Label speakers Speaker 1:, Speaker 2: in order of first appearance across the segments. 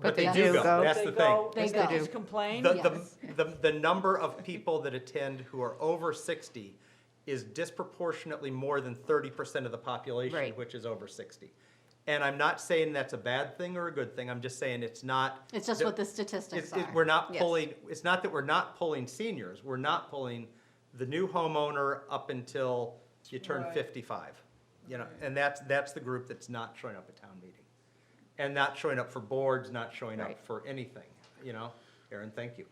Speaker 1: But they
Speaker 2: Yes.
Speaker 1: do go.
Speaker 2: That's
Speaker 3: They
Speaker 2: the
Speaker 3: go,
Speaker 2: thing.
Speaker 1: They
Speaker 3: if
Speaker 1: go.
Speaker 3: just complain,
Speaker 2: The, the-
Speaker 1: Yes.
Speaker 2: the, the number of people that attend who are over 60 is disproportionately more than 30% of the population,
Speaker 1: Right.
Speaker 2: which is over 60. And I'm not saying that's a bad thing or a good thing, I'm just saying it's not.
Speaker 1: It's just
Speaker 2: the-
Speaker 1: what the
Speaker 2: it's-
Speaker 1: statistics
Speaker 2: it-
Speaker 1: are.
Speaker 2: We're not
Speaker 1: Yes.
Speaker 2: pulling, it's not that we're not pulling seniors, we're not pulling the new homeowner up until you turn
Speaker 3: Right.
Speaker 2: 55. You know, and that's, that's the group that's not showing up at town meeting. And not showing up for boards, not showing up
Speaker 1: Right.
Speaker 2: for anything, you know? Aaron, thank you.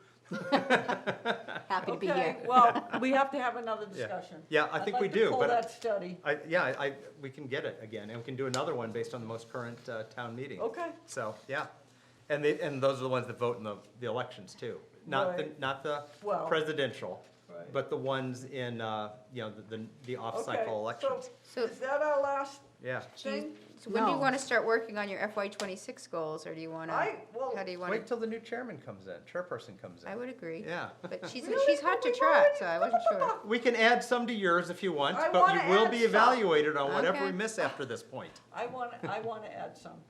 Speaker 1: Happy to be
Speaker 3: Okay,
Speaker 1: here.
Speaker 3: well, we have to have another discussion.
Speaker 2: Yeah, I
Speaker 3: I'd
Speaker 2: think
Speaker 3: like
Speaker 2: we
Speaker 3: to
Speaker 2: do,
Speaker 3: Pull
Speaker 2: but-
Speaker 3: that study.
Speaker 2: I, yeah, I, I- we can get it again, and we can do another one based on the most current uh, town meeting.
Speaker 3: Okay.
Speaker 2: So, yeah. And they, and those are the ones that vote in the, the elections too. Not the,
Speaker 3: Right.
Speaker 2: not the
Speaker 3: Well-
Speaker 2: presidential,
Speaker 3: Right.
Speaker 2: but the ones in, uh, you know, the, the- the off-cycle
Speaker 3: Okay, so
Speaker 2: elections.
Speaker 4: So-
Speaker 3: Is that our last
Speaker 2: Yeah.
Speaker 4: Do you-
Speaker 3: thing?
Speaker 4: So when do you
Speaker 1: No.
Speaker 4: want to start working on your FY twenty-six goals, or do you want to?
Speaker 3: I, well,
Speaker 4: How do you want
Speaker 2: Wait
Speaker 4: to?
Speaker 2: till the new chairman comes in, chairperson comes in.
Speaker 4: I would agree.
Speaker 2: Yeah.
Speaker 4: But she's,
Speaker 3: Really?
Speaker 4: she's hot
Speaker 3: But
Speaker 4: to
Speaker 3: we've
Speaker 4: trot,
Speaker 3: already-
Speaker 4: so I wasn't sure.
Speaker 2: We can add some to yours if you want,
Speaker 3: I
Speaker 2: but
Speaker 3: wanna
Speaker 2: you will
Speaker 3: add
Speaker 2: be
Speaker 3: some.
Speaker 2: evaluated on whatever we
Speaker 4: Okay.
Speaker 2: miss after this point.
Speaker 3: I want, I want to add some.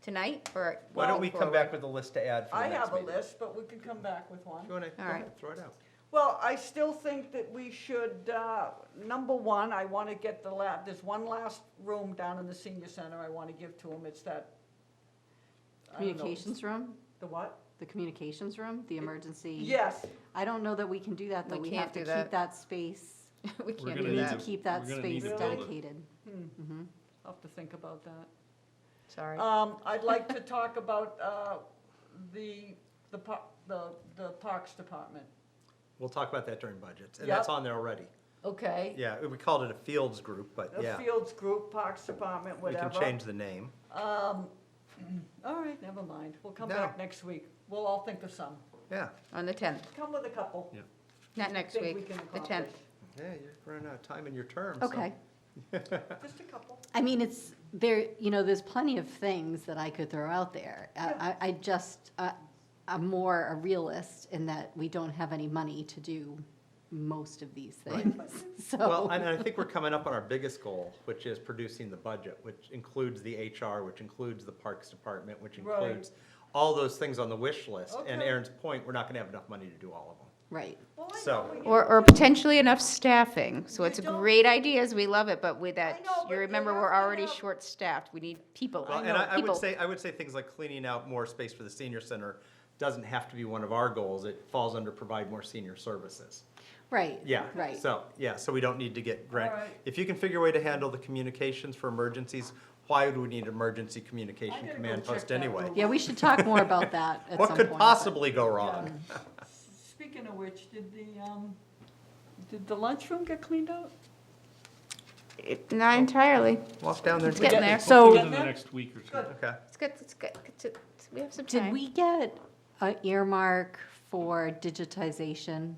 Speaker 4: Tonight or?
Speaker 2: Why don't
Speaker 4: going
Speaker 2: we come
Speaker 4: forward?
Speaker 2: back with a list to add for
Speaker 3: I
Speaker 2: the next
Speaker 3: have a
Speaker 2: meeting?
Speaker 3: list, but we can come back with one.
Speaker 2: If you wanna, go
Speaker 4: All right.
Speaker 2: ahead, throw it out.
Speaker 3: Well, I still think that we should, uh, number one, I want to get the la, there's one last room down in the senior center I want to give to them, it's that. I don't know,
Speaker 1: Communications room,
Speaker 3: The what?
Speaker 1: the communications room, the emergency.
Speaker 3: Yes,
Speaker 1: I don't know that we can do that, though.
Speaker 4: We
Speaker 1: We
Speaker 4: can't
Speaker 1: have to
Speaker 4: do
Speaker 1: keep
Speaker 4: that.
Speaker 1: that space,
Speaker 4: We
Speaker 5: We're
Speaker 4: can't
Speaker 5: gonna
Speaker 1: we
Speaker 4: do
Speaker 1: need
Speaker 5: need
Speaker 1: to
Speaker 4: that,
Speaker 5: to-
Speaker 1: keep that
Speaker 5: we're gonna need
Speaker 1: space
Speaker 3: to build it.
Speaker 1: dedicated. Mhm.
Speaker 3: Hmm. I'll have to think about that.
Speaker 4: sorry.
Speaker 3: Um, I'd like to talk about, uh, the, the par, the, the Parks Department.
Speaker 2: We'll talk about that during budgets, and that's
Speaker 3: Yep.
Speaker 2: on there already.
Speaker 3: Okay.
Speaker 2: Yeah, we called it a fields group, but
Speaker 3: The
Speaker 2: yeah,
Speaker 3: Fields Group, Parks Department,
Speaker 2: we
Speaker 3: whatever.
Speaker 2: can change the name.
Speaker 3: Um, all right, never mind, we'll come
Speaker 2: No.
Speaker 3: back next week, we'll all think of some,
Speaker 2: Yeah,
Speaker 4: On the tenth,
Speaker 3: come with a couple.
Speaker 4: not next
Speaker 3: think we
Speaker 4: week,
Speaker 3: can
Speaker 4: the
Speaker 3: accomplish.
Speaker 4: tenth.
Speaker 2: yeah, you're running out of time in your term. so-
Speaker 1: Okay.
Speaker 3: Just a couple.
Speaker 1: I mean, it's, there, you know, there's plenty of things that I could throw out there. I, I I just, uh, I'm more a realist in that we don't have any money to do most of these
Speaker 2: Right.
Speaker 1: things, so.
Speaker 2: Well, and I think we're coming up on our biggest goal, which is producing the budget, which includes the HR, which includes the Parks Department, which
Speaker 3: Right.
Speaker 2: includes all those things on the wish list. And
Speaker 3: Okay.
Speaker 2: Aaron's point, we're not gonna have enough money to do all of them.
Speaker 1: Right.
Speaker 3: Well, I
Speaker 2: So-
Speaker 3: know what you-
Speaker 4: Or, or potentially enough staffing, so
Speaker 3: You
Speaker 4: it's a
Speaker 3: don't-
Speaker 4: great ideas, we love it, but with that,
Speaker 3: know, but
Speaker 4: you
Speaker 3: you
Speaker 4: remember,
Speaker 3: have
Speaker 4: we're
Speaker 3: to
Speaker 4: already
Speaker 3: have-
Speaker 4: short-staffed, we need people,
Speaker 2: Well,
Speaker 4: I
Speaker 2: and
Speaker 4: know,
Speaker 2: I, I would
Speaker 4: people.
Speaker 2: say, I would say things like cleaning out more space for the senior center doesn't have to be one of our goals. It falls under provide more senior services.
Speaker 1: Right.
Speaker 2: Yeah.
Speaker 1: Right.
Speaker 2: So, yeah, so we don't need to get grant.
Speaker 3: All right.
Speaker 2: If you can figure a way to handle the communications for emergencies, why would we need emergency
Speaker 3: I
Speaker 2: communication
Speaker 3: gotta go
Speaker 2: command
Speaker 3: check
Speaker 2: post
Speaker 3: that
Speaker 2: anyway?
Speaker 3: room.
Speaker 1: Yeah, we should talk more about that at some point.
Speaker 2: What could
Speaker 1: but-
Speaker 2: possibly go wrong?
Speaker 3: Speaking of which, did the, um, did the lunchroom get cleaned out?
Speaker 4: It- Not entirely,
Speaker 2: Walk down there. and
Speaker 4: It's getting
Speaker 2: take a
Speaker 4: there.
Speaker 2: peek.
Speaker 3: So-
Speaker 5: Within the next week or two.
Speaker 3: Good.
Speaker 2: Okay,
Speaker 4: it's good, it's good, it's- it's- we have some time.
Speaker 1: Did we get an earmark for digitization?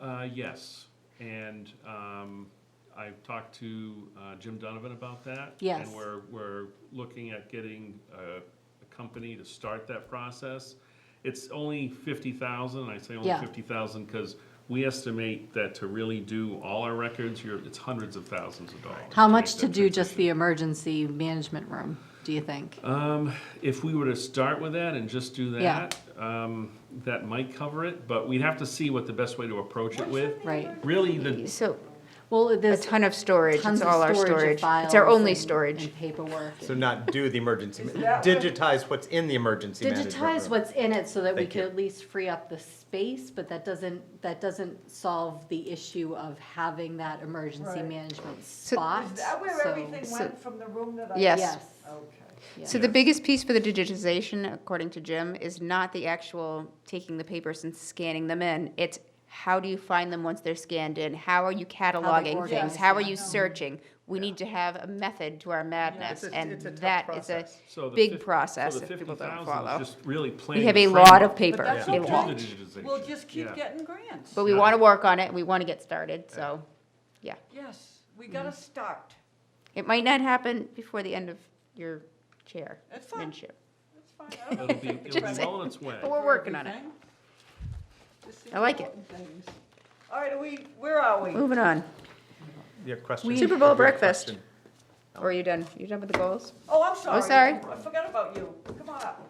Speaker 5: Uh, yes, and, um, I've talked to, uh, Jim Donovan about that.
Speaker 1: Yes.
Speaker 5: And we're, we're looking at getting a, a company to start that process. It's only fifty thousand, I say only
Speaker 1: Yeah.
Speaker 5: fifty thousand, because we estimate that to really do all our records, you're, it's hundreds of thousands of dollars.
Speaker 1: How
Speaker 5: to
Speaker 1: much
Speaker 5: make
Speaker 1: to
Speaker 5: that
Speaker 1: do just
Speaker 5: transition.
Speaker 1: the emergency management room, do you think?
Speaker 2: Uh,
Speaker 5: Um, if we were to start with that and just do
Speaker 1: Yeah.
Speaker 5: that, um, that might cover it, but we'd have to see what the best way to approach it with.
Speaker 1: Right.
Speaker 5: Really, the,
Speaker 4: So,
Speaker 1: Well,
Speaker 4: a
Speaker 1: there's
Speaker 4: ton of storage,
Speaker 1: tons
Speaker 4: it's
Speaker 1: of
Speaker 4: all our
Speaker 1: storage of
Speaker 4: storage, it's our
Speaker 1: files
Speaker 4: only
Speaker 1: and-
Speaker 4: storage.
Speaker 1: And paperwork.
Speaker 2: so not do the emergency,
Speaker 3: Is
Speaker 2: ma-
Speaker 3: that what-
Speaker 2: digitize what's in the emergency management
Speaker 1: Digitize
Speaker 2: room.
Speaker 1: what's in it so that we
Speaker 2: Thank
Speaker 1: could
Speaker 2: you.
Speaker 1: at least free up the space, but that doesn't, that doesn't solve the issue of having that emergency
Speaker 3: Right.
Speaker 1: management spot.
Speaker 3: Is that where
Speaker 1: so-
Speaker 3: everything went from the room that I?
Speaker 4: Yes.
Speaker 1: Yes.
Speaker 3: Okay.
Speaker 1: yeah.
Speaker 4: So the biggest piece for the digitization, according to Jim, is not the actual taking the papers and scanning them in. It's how do you find them once they're scanned in? How are you cataloging things?
Speaker 1: organized,
Speaker 4: How are
Speaker 1: yeah.
Speaker 4: you searching? We need to have a method to our madness,
Speaker 2: It's a-
Speaker 4: and
Speaker 2: it's a tough
Speaker 4: that is a
Speaker 2: process.
Speaker 5: so the
Speaker 4: big
Speaker 5: fif- so
Speaker 4: process
Speaker 5: the
Speaker 4: that people don't
Speaker 5: 50,000 is
Speaker 4: follow.
Speaker 5: Just really planning.
Speaker 4: We have a
Speaker 5: the
Speaker 4: lot of
Speaker 5: framework.
Speaker 4: paper,
Speaker 3: But that's
Speaker 4: a
Speaker 3: okay.
Speaker 4: lot.
Speaker 5: To do the digitization.
Speaker 3: We'll just keep
Speaker 5: Yeah.
Speaker 3: getting grants.
Speaker 4: But we
Speaker 5: Yeah.
Speaker 4: want to work on it. We want to get started. So
Speaker 3: Yes, we
Speaker 4: Mhm.
Speaker 3: gotta start.
Speaker 4: it might not happen before the end of your
Speaker 3: That's fine.
Speaker 4: chairmanship.
Speaker 3: That's fine. I don't
Speaker 5: It'll
Speaker 3: think
Speaker 5: be,
Speaker 3: it's
Speaker 5: it'll
Speaker 3: right.
Speaker 5: be well in its way.
Speaker 4: But we're working on it.
Speaker 3: Everything. Just the
Speaker 4: I like it.
Speaker 3: important things. All right, are we, where are we?
Speaker 4: Moving on.
Speaker 2: Your question.
Speaker 4: Super Bowl
Speaker 2: your
Speaker 4: breakfast.
Speaker 2: question.
Speaker 4: Or are you done? You done with the goals?
Speaker 3: Oh, I'm sorry.
Speaker 4: sorry.
Speaker 3: Oh,
Speaker 4: Oh,
Speaker 3: I forgot about you. Come on up.